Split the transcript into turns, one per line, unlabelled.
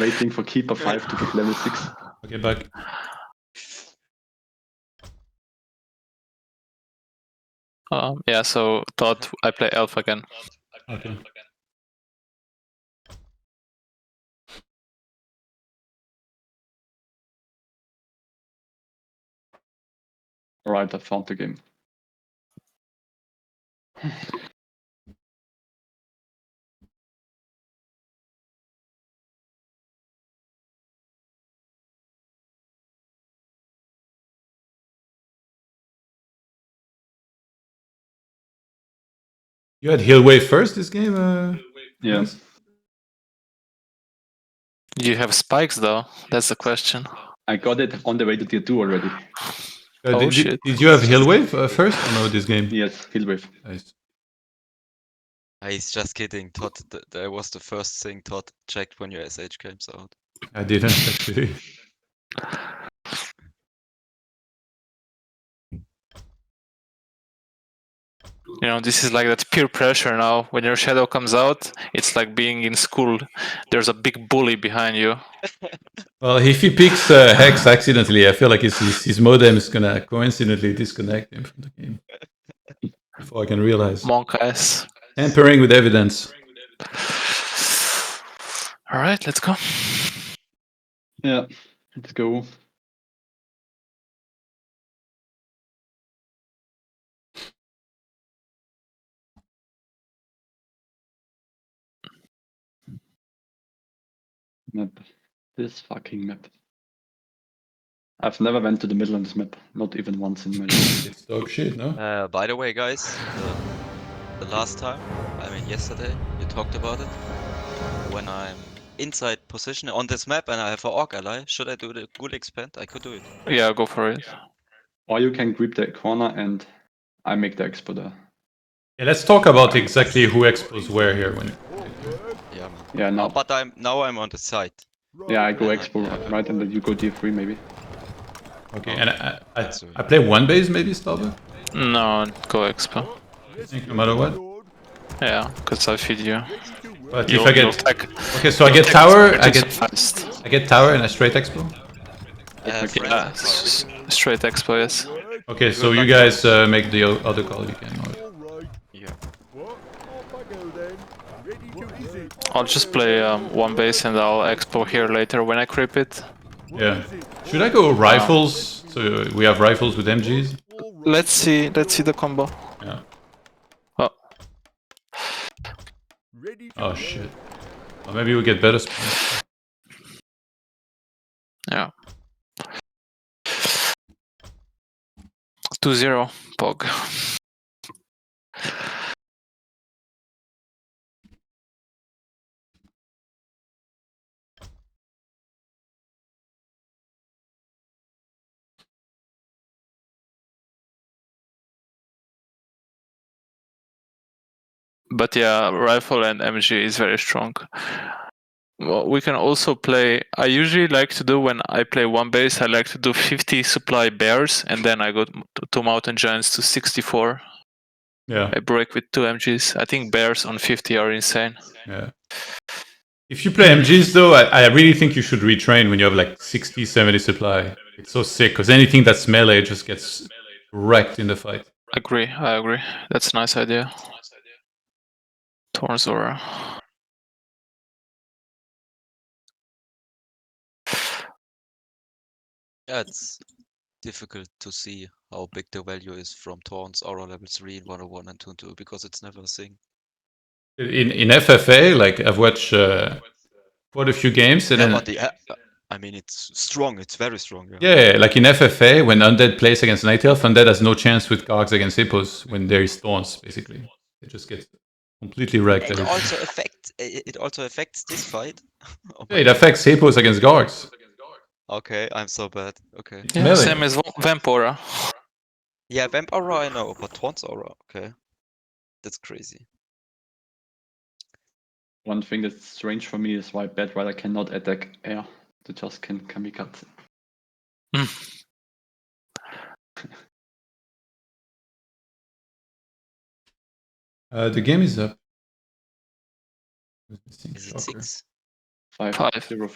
waiting for keeper five to get level six.
Okay, back.
Um, yeah, so thought I play elf again.
Okay.
Alright, I found the game.
You had heal wave first this game. Uh,
Yeah.
Yes.
You have spikes though. That's the question.
I got it on the way to tier two already.
uh,
Oh,
did, you-
shit.
did you have heal wave uh, first? Or no, this game.
Yes, heal wave.
Nice.
He's just kidding. Todd, th- that was the first thing Todd checked when your SH comes out.
I didn't actually.
You know, this is like that peer pressure now. When your shadow comes out, it's like being in school. There's a big bully behind you.
Well, if he picks uh, Hex accidentally, I feel like his, his, his modem is gonna coincidentally disconnect him from the game. Before I can realize.
Monk ass.
Tampering with evidence.
All right, let's go.
Yeah, let's go. Map. This fucking map. I've never went to the middle on this map, not even once in my life.
It's dog shit, no?
Uh, by the way, guys, the, the last time, I mean yesterday, you talked about it. When I'm inside position on this map and I have a orc ally, should I do the ghoul expand? I could do it.
Yeah, go for it.
Or you can grip the corner and I make the expo there.
Yeah, let's talk about exactly who expos where here. When
Yeah, man.
Yeah,
No,
now.
but I'm now I'm on the side.
Yeah, I go expo right and then you go D3 maybe.
okay, and I, I, I- I play one base maybe, Starbuck.
No, go expo.
I think no matter what.
Yeah, because I feed you.
But if
You'll-
I
you'll
get
tech-
okay, so I
you'll
get
tech
tower,
expo
I
just
get
fast.
I get tower and I straight expo.
Uh, friends
Yeah,
are fine.
s- straight expo. Yes.
Okay, so you guys uh, make the o- other call you can. or-
Yeah.
I'll just play um, one base and I'll expo here later when I creep it.
Yeah. Should I go rifles? So we have rifles with MGs.
Let's see. Let's see the combo.
Yeah.
Oh,
Oh shit. Or maybe we get better spawns.
yeah. 2-0, Pog. But yeah, rifle and MG is very strong. Well, we can also play. I usually like to do when I play one base, I like to do 50 supply bears, and then I go to to mountain giants to 64.
Yeah.
I break with two MGs. I think bears on 50 are insane.
Yeah. If you play MGs though, I, I really think you should retrain when you have like 60, 70 supply. It's so sick because anything that's melee just gets wrecked in the fight.
Agree, I agree. That's a nice idea. Torn Zora.
Yeah, it's difficult to see how big the value is from Torrents, Aura level 3, 101, and 202 because it's never a thing.
In in FFA, like I've watched uh, quite a few games, and
Yeah,
then
but the, a- I mean, it's strong, it's very strong. Yeah.
yeah, like in FFA, when undead plays against night elf, undead has no chance with cogs against hippos when there is thorns. Basically, they just get completely wrecked.
It
every time.
also affects i- it also affects this fight. Oh
Yeah,
my-
it affects hippos against guards.
okay, I'm so bad. Okay.
Yeah,
Melee.
same as Va- Vampora.
Yeah, Vamp Aura I know, but Torrents Aura, okay. That's crazy.
One thing that's strange for me is why Bad Rider cannot attack air. They just can kamikaze.
Uh, the game is up.
Is it six?
Five,
Five.
zero,